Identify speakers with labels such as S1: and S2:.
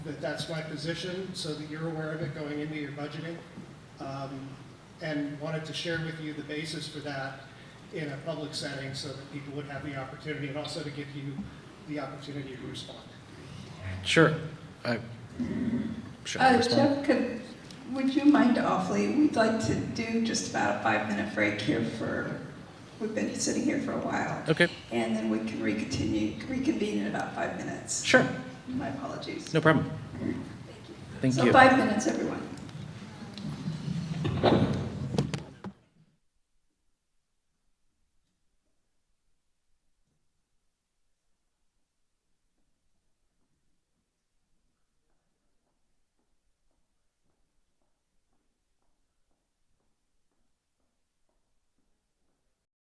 S1: that that's my position, so that you're aware of it going into your budgeting. Um, And wanted to share with you the basis for that in a public setting, so that people would have the opportunity, and also to give you the opportunity to respond.
S2: Sure. I, should I
S3: Uh,
S2: respond?
S3: Jeff, could, would you mind awfully, we'd like to do just about a five-minute break here for, we've been sitting here for a while.
S2: Okay,
S3: And then we can recontinue, reconvene in about five minutes.
S2: sure,
S3: My apologies.
S2: no problem. Thank
S3: So
S2: you.
S3: five minutes, everyone.